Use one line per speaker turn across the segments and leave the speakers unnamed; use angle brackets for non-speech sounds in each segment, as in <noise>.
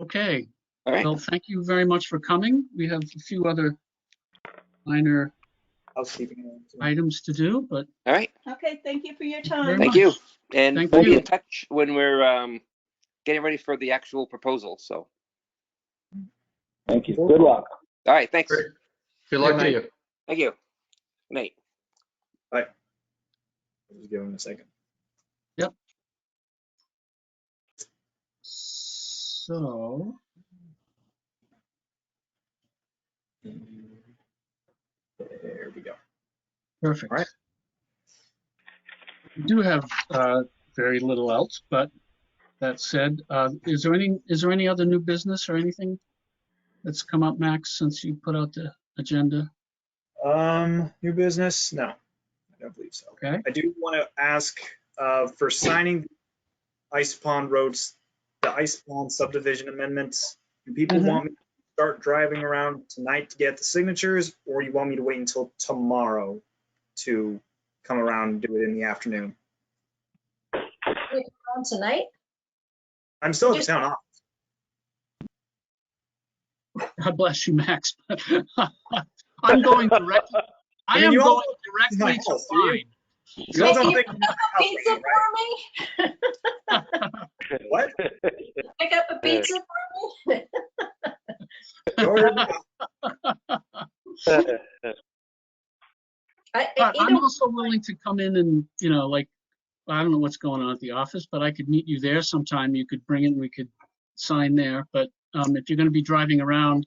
Okay,
All right,
well, thank you very much for coming. We have a few other minor
housekeeping. items.
items to do, but
all right.
Okay, thank you for your
very
time.
Thank
much.
you. And
Thank
we'll be
you.
in touch when we're um, getting ready for the actual proposal. So,
Thank you. Good luck.
all right, thanks.
Great. Good luck to
night.
you.
Thank you. Nate.
Just give him a second.
So,
There we go.
perfect.
All right.
We do have uh, very little else, but that said, uh, is there any, is there any other new business or anything that's come up, Max, since you put out the agenda?
Um, new business? No, I don't believe so.
Okay,
I do want to ask uh, for signing Ice Pond Roads, the Ice Pond subdivision amendments. Do people
Mhm.
want me to start driving around tonight to get the signatures, or you want me to wait until tomorrow to come around and do it in the afternoon?
on tonight?
I'm still in
Just-
town.
God bless you, Max. <laughs> I'm going directly, I
mean,
am
you all-
going
<laughs>
directly to
Yes, you-
find.
You all don't think
Pizza for me?
What?
Pick up a pizza <laughs> for me?
Jordan,
I- I-
But I'm
Either
also willing to come in and, you know, like, I don't know what's going on at the office, but I could meet you there sometime. You could bring it and we could sign there. But um, if you're going to be driving around,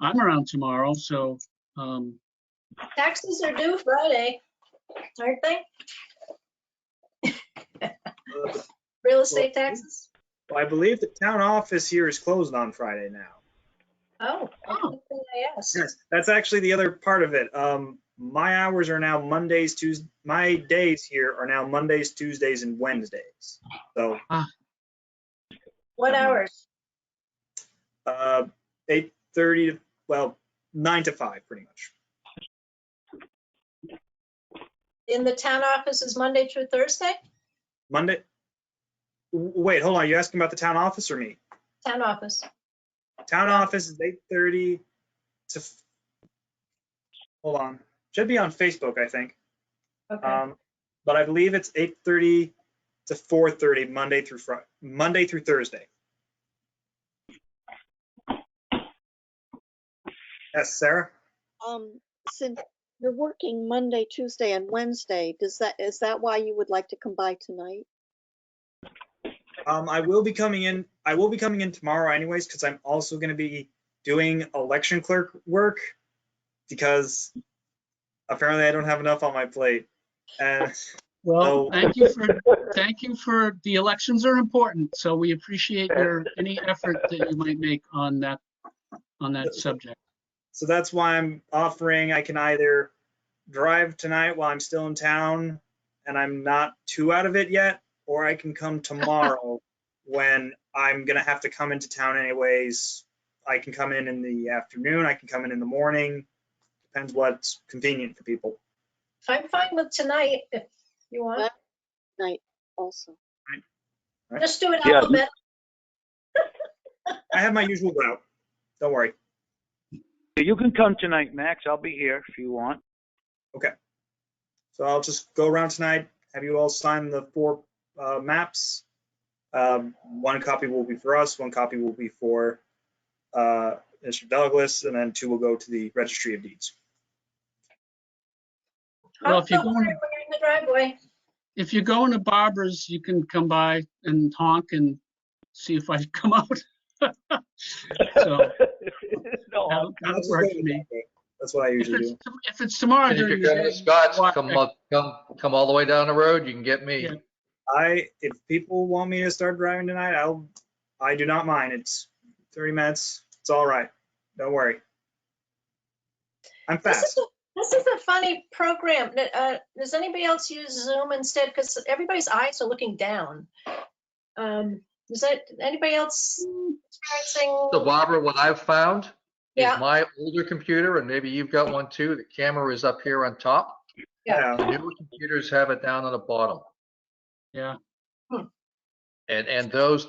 I'm around tomorrow, so um,
taxes are due Friday, aren't they?
uh,
Real estate taxes?
I believe the town office here is closed on Friday now.
Oh, I
Oh.
don't think I asked.
Yes, that's actually the other part of it. Um, my hours are now Mondays, Tues, my days here are now Mondays, Tuesdays, and Wednesdays. So,
What hours?
uh, eight thirty to, well, nine to five, pretty much.
In the town office is Monday through Thursday?
Monday. w- Wait, hold on. You asking about the town office or me?
Town office.
Town office is eight thirty to. f- Hold on. Should be on Facebook, I think.
Uh,
Okay.
Um, but I believe it's eight thirty to four thirty, Monday through Friday, Monday through Thursday. Yes, Sarah?
Um, since you're working Monday, Tuesday, and Wednesday, does that, is that why you would like to come by tonight?
Um, I will be coming in, I will be coming in tomorrow anyways, because I'm also gonna be doing election clerk work because apparently I don't have enough on my plate. And <laughs>
well,
So-
thank you for, thank you for, the elections are important, so we appreciate your, any effort that you might make on that, on that subject.
So that's why I'm offering I can either drive tonight while I'm still in town and I'm not too out of it yet, or I can come tomorrow when I'm gonna have to come into town anyways. I can come in in the afternoon, I can come in in the morning, depends what's convenient for people.
I'm fine with tonight if you want.
Night also.
Right.
Just do it
Yeah.
alphabet.
I have my usual route, don't worry.
<laughs> You can come tonight, Max. I'll be here if you want. <laughs>
So I'll just go around tonight, have you all sign the four uh, maps. Um, One copy will be for us, one copy will be for uh, Mr. Douglas, and then two will go to the Registry of Deeds.
Well,
Oh,
if you're
don't worry,
going-
We're in the driveway.
if you're going to Barbara's, you can come by and honk and see if I <laughs> come out. <laughs> So,
No,
that'll that'll work for me.
That's what I
If it's,
usually
<laughs>
do.
if it's tomorrow
And If
during
you're
the
going
day.
to Scott's,
walk
come
back-
up, come, come all the way down the road. You can get me.
Yeah.
I, if people want me to start driving tonight, I'll, I do not mind. It's 30 minutes. It's all right. Don't worry. I'm
This is
fast.
a- This is a funny program. Th- uh, Does anybody else use Zoom instead? Because everybody's eyes are looking down. Um, Is that, anybody else
So
experiencing?
Barbara, what I've found is
Yeah.
my older computer, and maybe you've got one too, the camera is up here on top.
Yeah.
The newer computers have it down on the bottom.
Yeah.
And, and those